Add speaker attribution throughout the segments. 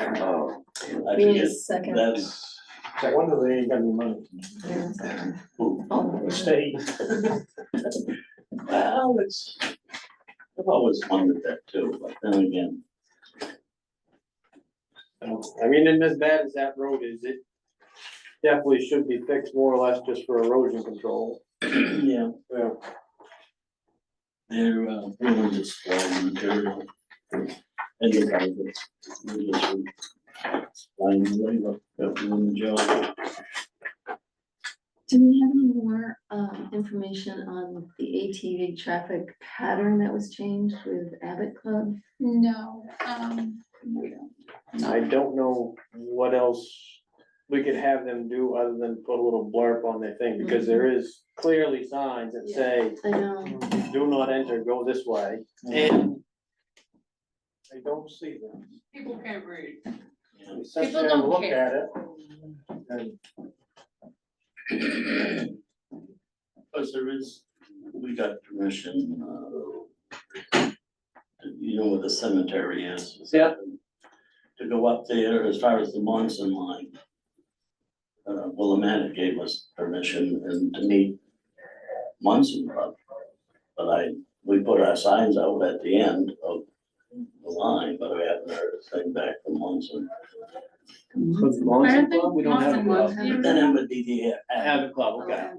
Speaker 1: Oh, I
Speaker 2: We need a
Speaker 1: forget.
Speaker 2: second.
Speaker 1: That's,
Speaker 3: No wonder they ain't got any money.
Speaker 2: Yeah.
Speaker 1: oh, state. Well, it's, I've always wondered that too, but then again,
Speaker 3: I mean, and as bad as that road is, it definitely should be fixed more or less just for erosion control.
Speaker 1: yeah,
Speaker 3: Yeah.
Speaker 1: they're, uh, really just flowing material. And you guys, it's, we just, uh, find a way to get doing the job.
Speaker 2: Do we have any more um information on the ATV traffic pattern that was changed with Abbott Club?
Speaker 4: No, um, we don't.
Speaker 3: I don't know what else we could have them do other than put a little blurb on their thing, because there is clearly signs that say,
Speaker 2: I know,
Speaker 3: do not enter, go this way, and I don't see them.
Speaker 5: People can't read.
Speaker 3: We sat
Speaker 5: People
Speaker 3: there and
Speaker 5: don't
Speaker 3: looked
Speaker 5: care.
Speaker 3: at it, and
Speaker 1: Because there is, we got permission, uh, you know where the cemetery is.
Speaker 3: Yeah.
Speaker 1: To go up there as far as the Monson line. Uh, Willamette gave us permission and to meet Monson Club. But I, we put our signs out at the end of the line, but we haven't heard a thing back from Monson.
Speaker 5: I don't
Speaker 3: Club?
Speaker 5: think
Speaker 3: We don't have a
Speaker 5: Monson
Speaker 3: club.
Speaker 5: was,
Speaker 1: Then it would be the, uh,
Speaker 3: Have a club,
Speaker 2: Oh,
Speaker 3: okay.
Speaker 2: Abbott.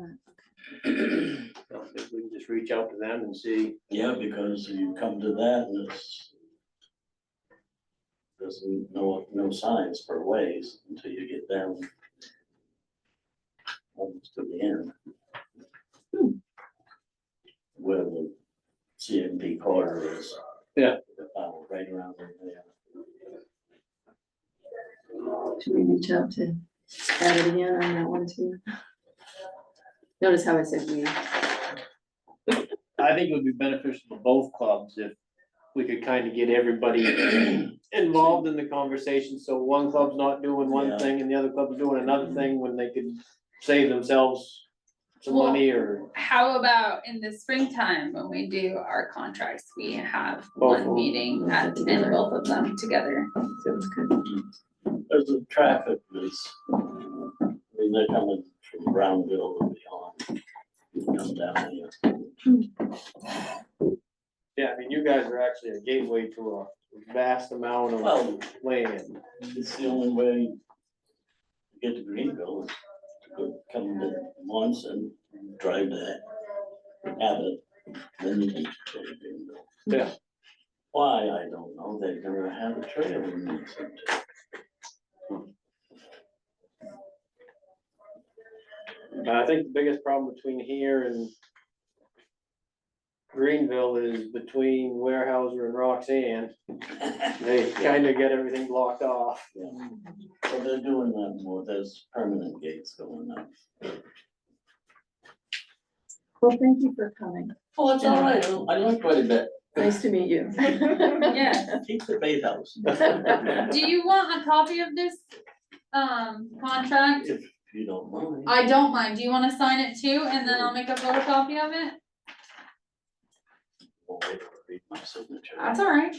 Speaker 3: So if we can just reach out to them and see.
Speaker 1: Yeah, because you come to that and it's. There's no, no signs for ways until you get down. Almost to the end. Where the CMP corner is.
Speaker 3: Yeah.
Speaker 1: Uh, Right around there.
Speaker 2: Should we reach out to Abbott again on that one too? Notice how I said we,
Speaker 3: I think it would be beneficial to both clubs if we could kind of get everybody involved in the conversation, so one club's not doing
Speaker 1: Yeah. Mm-hmm.
Speaker 3: one thing and the other club's doing another thing when they could save themselves some money or
Speaker 4: How about in the springtime, when we do our contracts, we have
Speaker 3: Both of
Speaker 4: one
Speaker 3: them.
Speaker 4: meeting at, and both of them together.
Speaker 2: sounds good.
Speaker 1: There's the traffic is, I mean, they're coming from Brownville and beyond. You Come down here.
Speaker 3: Yeah, I mean, you guys are actually a gateway to a vast amount of
Speaker 1: Well,
Speaker 3: land.
Speaker 1: It's the only way to get to Greenville, is to go- come to Monson, drive to Abbott, then you can go to Greenville.
Speaker 3: Yeah.
Speaker 1: Why, I don't know, they've never had a trail in Monson.
Speaker 3: And I think the biggest problem between here and Greenville is between Warehouser and Roxanne, they kind of get everything blocked off.
Speaker 1: Yeah. So they're doing that more, there's permanent gates going up.
Speaker 2: Well, thank you for coming.
Speaker 1: Oh, it's all right, I like quite a bit,
Speaker 2: Nice to meet you.
Speaker 4: Yes.
Speaker 1: keep the bathhouse.
Speaker 4: Do you want a copy of this, um, contract?
Speaker 1: If you don't mind.
Speaker 4: I don't mind. Do you wanna sign it too? And then I'll make a photocopy of it?
Speaker 1: I'll wait to read my signature.
Speaker 4: That's all right.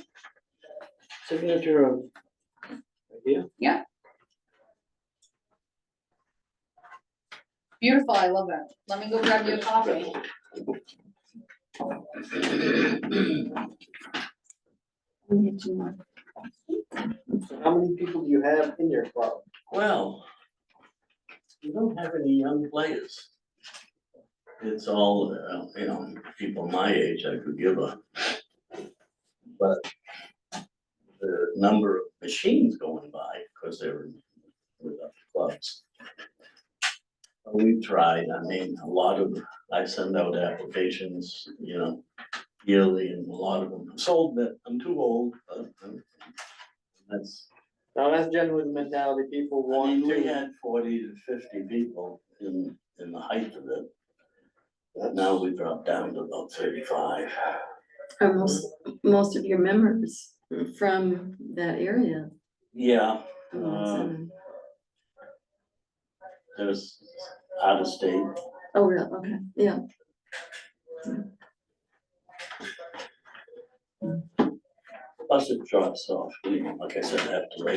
Speaker 3: Signature of. Yeah.
Speaker 4: Beautiful. I love it. Let me go grab you a copy.
Speaker 2: We need two more.
Speaker 3: So how many people do you have in your club?
Speaker 1: Well, we don't have any young players. It's all, uh, you know, people my age I could give a. But the number of machines going by, because they're with the clubs. We've tried, I mean, a lot of, I send out applications, you know, yearly and a lot of them sold, but I'm too old. but, um, That's
Speaker 3: Now, that's generally the mentality people
Speaker 1: I mean,
Speaker 3: want
Speaker 1: we
Speaker 3: to.
Speaker 1: had forty to fifty people in, in the height of it. But now we dropped down to about thirty-five.
Speaker 2: Are most, most of your members from that area?
Speaker 1: Yeah, uh,
Speaker 2: Oh,
Speaker 1: there's out of state,
Speaker 2: oh, really? Okay, yeah.
Speaker 1: plus it drops off, you know, like I said, after